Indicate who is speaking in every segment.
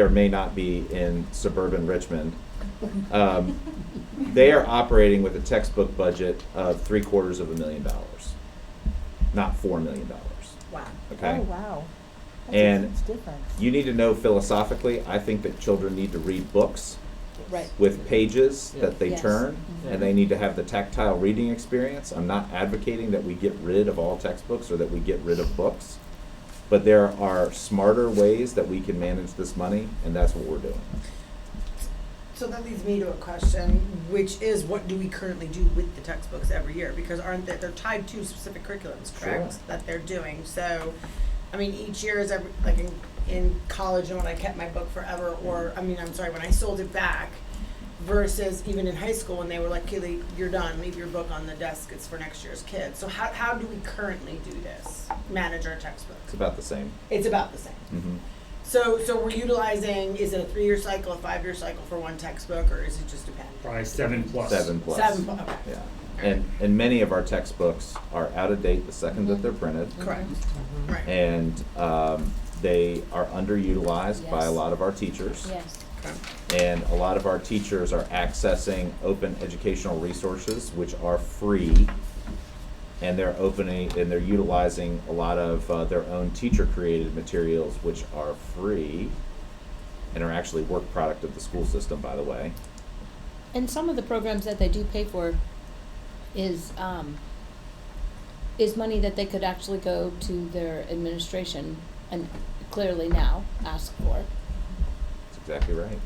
Speaker 1: or may not be in suburban Richmond. Um, They are operating with a textbook budget of three quarters of a million dollars, not four million dollars,
Speaker 2: Wow.
Speaker 1: okay?
Speaker 3: Oh, wow. That's
Speaker 1: And
Speaker 3: a huge difference.
Speaker 1: You need to know philosophically, I think that children need to read books
Speaker 2: Right.
Speaker 1: with pages that they
Speaker 2: Yes.
Speaker 1: turn,
Speaker 3: Mm-hmm.
Speaker 2: Mhm.
Speaker 1: and they need to have the tactile reading experience. I'm not advocating that we get rid of all textbooks or that we get rid of books, but there are smarter ways that we can manage this money, and that's what we're doing.
Speaker 4: So that leads me to a question, which is what do we currently do with the textbooks every year? Because aren't they, they're tied to specific curriculums, correct?
Speaker 1: Sure.
Speaker 4: That they're doing, so, I mean, each year is every, like in, in college, and when I kept my book forever, or, I mean, I'm sorry, when I sold it back, versus even in high school when they were like, Kaylee, you're done, leave your book on the desk, it's for next year's kids. So how, how do we currently do this, manage our
Speaker 1: It's
Speaker 4: textbooks?
Speaker 1: about the same.
Speaker 4: It's about the same.
Speaker 1: Mhm.
Speaker 4: So, so we're utilizing, is it a three-year cycle, a five-year cycle for one textbook, or is it just dependent?
Speaker 5: Probably seven plus.
Speaker 1: Seven plus.
Speaker 4: Seven, bu- okay.
Speaker 1: Yeah, and, and many of our textbooks are out of date the second that they're printed.
Speaker 4: Correct, right.
Speaker 1: And, um, they are underutilized by a
Speaker 2: Yes.
Speaker 1: lot of our teachers.
Speaker 2: Yes.
Speaker 4: Okay.
Speaker 1: And a lot of our teachers are accessing open educational resources, which are free. And they're opening, and they're utilizing a lot of uh, their own teacher-created materials, which are free and are actually work product of the school system, by the way.
Speaker 6: And some of the programs that they do pay for is, um, is money that they could actually go to their administration and clearly now ask for.
Speaker 1: That's exactly right.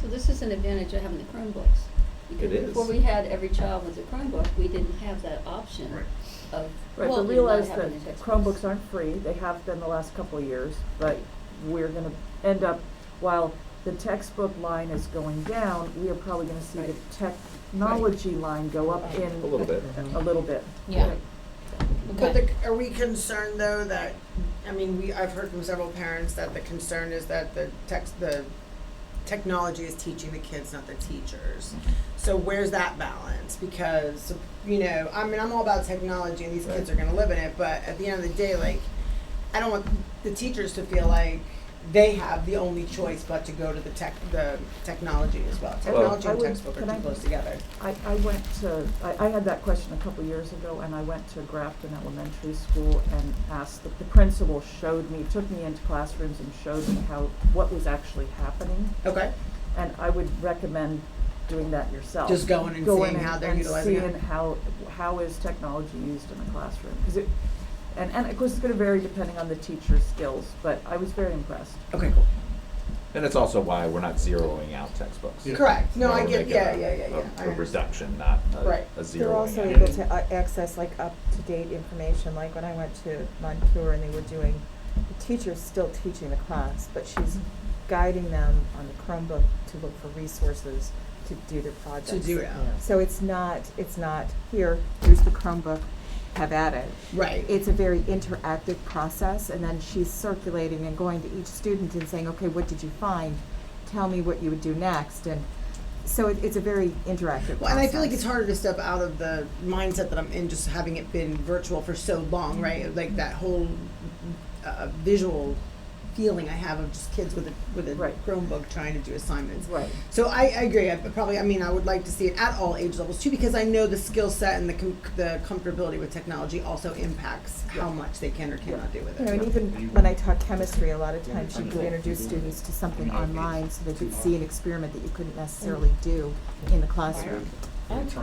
Speaker 7: So this is an advantage of having the Chromebooks. because
Speaker 1: It is.
Speaker 7: Before we had every child with a Chromebook, we didn't have that option
Speaker 5: Right.
Speaker 7: of.
Speaker 3: Right,
Speaker 6: Well,
Speaker 3: but
Speaker 7: not
Speaker 3: realize that
Speaker 7: having the textbooks.
Speaker 3: Chromebooks aren't free, they have been the last couple of years, but we're gonna end up, while the textbook line is going down, we are probably gonna see the
Speaker 7: Right.
Speaker 3: technology line go up in.
Speaker 1: A little bit.
Speaker 3: A little bit.
Speaker 6: Yeah.
Speaker 3: Right.
Speaker 4: But
Speaker 6: Okay.
Speaker 4: the, are we concerned though that, I mean, we, I've heard from several parents that the concern is that the text, the technology is teaching the kids, not the teachers. So where's that balance? Because, you know, I mean, I'm all about technology and these kids are
Speaker 1: Right.
Speaker 4: gonna live in it, but at the end of the day, like, I don't want the teachers to feel like they have the only choice but to go to the tech, the technology as well. Technology
Speaker 3: I
Speaker 4: and
Speaker 3: would-
Speaker 4: textbook are
Speaker 3: can I-
Speaker 4: too close together.
Speaker 3: I, I went to, I, I had that question a couple years ago, and I went to Grafton Elementary School and asked, the, the principal showed me, took me into classrooms and showed me how, what was actually happening.
Speaker 4: Okay.
Speaker 3: And I would recommend doing that yourself.
Speaker 4: Just going and
Speaker 3: Go
Speaker 4: seeing
Speaker 3: in
Speaker 4: how they're
Speaker 3: and
Speaker 4: utilizing it.
Speaker 3: seeing how, how is technology used in the classroom? 'Cause it, and, and of course, it's gonna vary depending on the teacher's skills, but I was very impressed.
Speaker 4: Okay, cool.
Speaker 1: And it's also why we're not zeroing out textbooks.
Speaker 5: Yeah.
Speaker 4: Correct. No,
Speaker 1: Why
Speaker 4: I
Speaker 1: uh, we're
Speaker 4: get,
Speaker 1: making
Speaker 4: yeah,
Speaker 1: a-
Speaker 4: yeah, yeah, yeah.
Speaker 1: a-
Speaker 4: I
Speaker 1: A
Speaker 4: understand.
Speaker 1: reduction, not a,
Speaker 4: Right.
Speaker 1: a zeroing.
Speaker 3: They're also
Speaker 1: out.
Speaker 5: able
Speaker 3: able
Speaker 5: to,
Speaker 3: to
Speaker 8: uh,
Speaker 3: access like up-to-date information, like when I went to Moncur and they were doing, the teacher's still teaching the class, but she's guiding them on the Chromebook to look for resources to do their projects.
Speaker 4: To do it.
Speaker 3: So it's not, it's not, here, here's the Chromebook, have at it.
Speaker 4: Right.
Speaker 3: It's a very interactive process, and then she's circulating and going to each student and saying, okay, what did you find? Tell me what you would do next, and so it, it's a very interactive process.
Speaker 4: Well, and I feel like it's harder to step out of the mindset that I'm in, just having it been virtual for so long,
Speaker 8: Mm-hmm.
Speaker 4: right? Like that whole uh, visual feeling I have of just kids with a with a
Speaker 3: Right.
Speaker 4: Chromebook trying to do assignments.
Speaker 3: Right.
Speaker 4: So I, I agree. I probably, I mean, I would like to see it at all age levels too, because I know the skill set and the com- the comfortability with technology also impacts how much they can or cannot do with
Speaker 8: You know,
Speaker 4: it.
Speaker 8: and even when I taught chemistry, a lot of times you could introduce students to something online so they could see an experiment that you couldn't necessarily do in the classroom.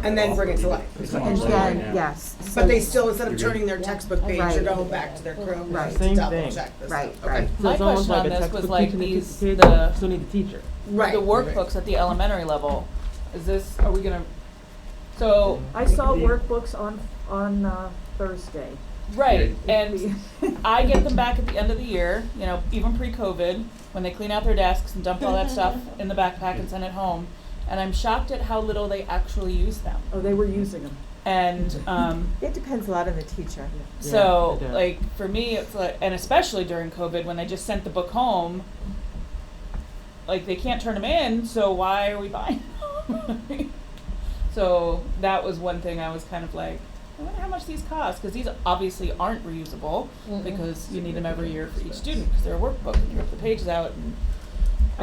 Speaker 4: And then bring it to life.
Speaker 5: It's
Speaker 8: And
Speaker 5: online right now.
Speaker 8: then, yes. so-
Speaker 4: But they still, instead of
Speaker 5: You're
Speaker 4: turning their textbook page,
Speaker 8: Right.
Speaker 4: they're going back to their Chromebook
Speaker 8: Right.
Speaker 4: to
Speaker 9: Same
Speaker 4: double
Speaker 9: thing.
Speaker 4: check this.
Speaker 8: Right,
Speaker 4: stuff. Okay.
Speaker 8: right.
Speaker 9: So
Speaker 2: My
Speaker 9: it's almost
Speaker 2: question on
Speaker 9: like a
Speaker 2: this was
Speaker 9: textbook
Speaker 2: like
Speaker 9: teaching the
Speaker 2: these,
Speaker 9: kid,
Speaker 2: the,
Speaker 9: Still need the teacher.
Speaker 4: Right.
Speaker 2: the workbooks at the elementary level. Is this, are we gonna, so,
Speaker 3: I saw
Speaker 5: Yeah.
Speaker 3: workbooks on, on uh, Thursday.
Speaker 2: right,
Speaker 5: Yeah.
Speaker 2: and I get them back at the end of the year, you know, even pre-COVID, when they clean out their desks and dump all that stuff in the backpack and send it home. And I'm shocked at how little they actually use them.
Speaker 3: Oh, they were using them.
Speaker 2: And, um,
Speaker 8: It depends a lot on the teacher.
Speaker 2: So
Speaker 9: Yeah, it does.
Speaker 2: like for me, it's like, and especially during COVID when they just sent the book home, like they can't turn them in. So why are we buying? them? so that was one thing I was kind of like, I wonder how much these cost because these obviously aren't reusable
Speaker 6: Mm-mm.
Speaker 2: because you need them every year for each
Speaker 1: Significant
Speaker 2: student because they're a workbook and you rip the pages out and